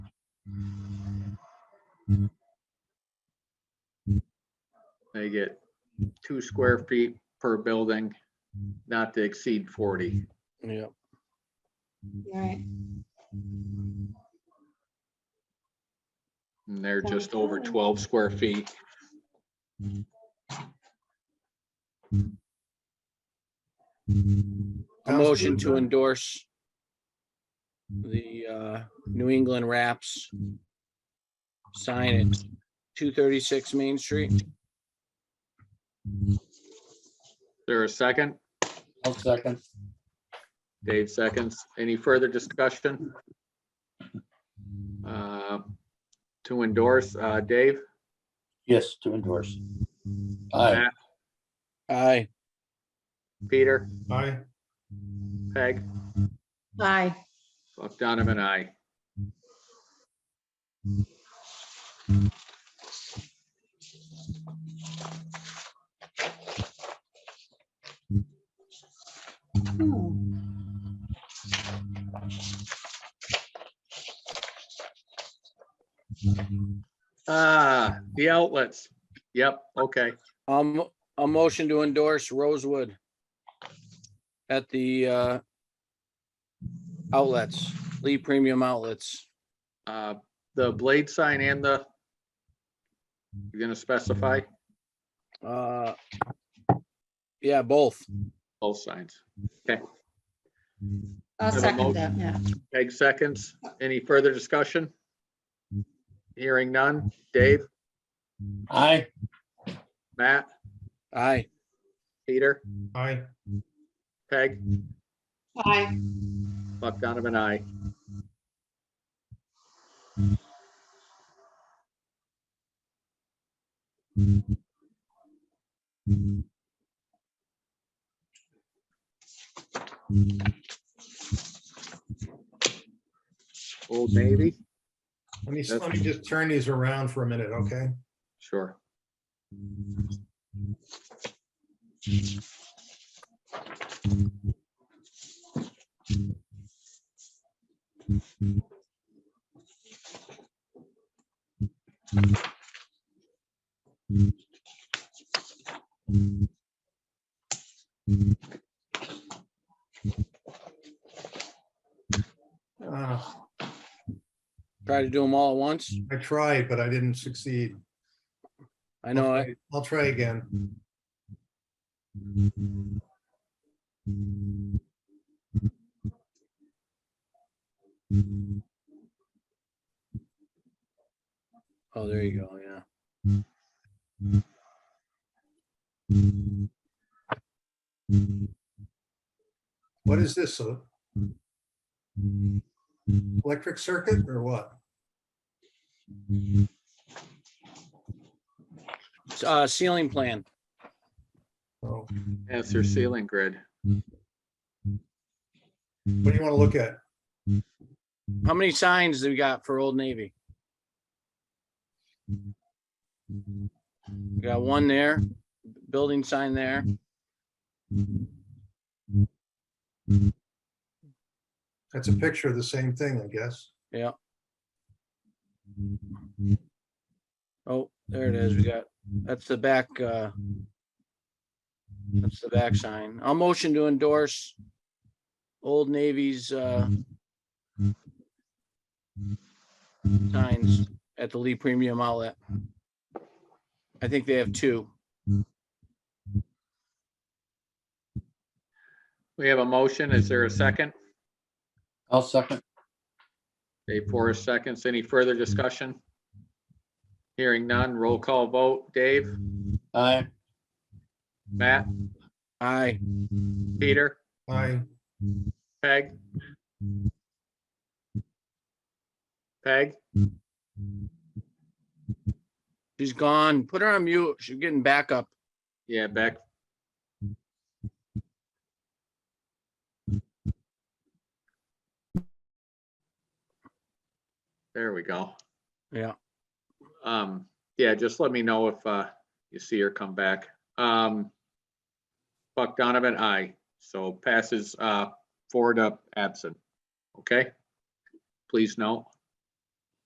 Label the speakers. Speaker 1: They get two square feet per building, not to exceed forty.
Speaker 2: Yeah,
Speaker 3: Right.
Speaker 1: And they're
Speaker 3: Sounds
Speaker 1: just over
Speaker 3: good.
Speaker 1: twelve square feet.
Speaker 2: a motion to endorse the uh, New England Wraps sign at two thirty-six Main Street.
Speaker 1: Is There a second?
Speaker 4: I'll second.
Speaker 1: Dave seconds. Any further discussion? Uh, To endorse, uh, Dave?
Speaker 4: Yes, to endorse. Aye,
Speaker 1: Matt,
Speaker 2: Aye,
Speaker 1: Peter,
Speaker 5: Aye.
Speaker 1: Peg,
Speaker 3: Aye.
Speaker 1: Buck Donovan, I.
Speaker 3: Hmm.
Speaker 1: Ah, the outlets. Yep, okay.
Speaker 2: um, a motion to endorse Rosewood at the uh, outlets, Lee Premium Outlets.
Speaker 1: Uh, The blade sign and the, you're gonna specify
Speaker 2: Uh, Yeah, both.
Speaker 1: both signs.
Speaker 3: I'll
Speaker 1: Have a
Speaker 3: second
Speaker 1: mo-
Speaker 3: that, yeah.
Speaker 1: Peg seconds. Any further discussion? Hearing none. Dave,
Speaker 4: aye,
Speaker 1: Matt,
Speaker 2: Aye.
Speaker 1: Peter,
Speaker 5: Aye.
Speaker 1: Peg,
Speaker 3: Aye.
Speaker 1: Buck Donovan, I. Old Navy?
Speaker 5: Let me,
Speaker 1: That's-
Speaker 5: let me just turn these around for a minute, okay?
Speaker 1: Sure.
Speaker 5: Uh,
Speaker 2: Try to do them all at once.
Speaker 5: I tried, but I didn't succeed.
Speaker 2: I know, I-
Speaker 5: I'll try again.
Speaker 2: oh, there you go, yeah.
Speaker 5: What is this? uh, Electric circuit or what?
Speaker 2: S- Uh, ceiling plan.
Speaker 5: Oh,
Speaker 1: That's their ceiling grid.
Speaker 5: What do you want to look at?
Speaker 2: How many signs do we got for Old Navy? We got one there, building sign there.
Speaker 5: That's a picture of the same thing, I guess.
Speaker 2: Oh, there it is. We got, that's the back, uh, that's the back sign. I'll motion to endorse Old Navy's, uh, signs at the Lee Premium Outlet. I think they have two.
Speaker 1: We have a motion. Is there a second?
Speaker 4: I'll second.
Speaker 1: Dave Forrest seconds. Any further discussion? Hearing none. Roll call vote. Dave,
Speaker 4: Aye,
Speaker 1: Matt,
Speaker 2: Aye.
Speaker 1: Peter,
Speaker 5: Aye.
Speaker 1: Peg? Peg?
Speaker 2: She's gone. Put her on mute. She's getting back up.
Speaker 1: Yeah, Beck. There we go.
Speaker 2: Yeah.
Speaker 1: Um, yeah, just let me know if, uh, you see her come back. Um, Buck Donovan, aye. So passes, uh, four to absent. Okay? Please note.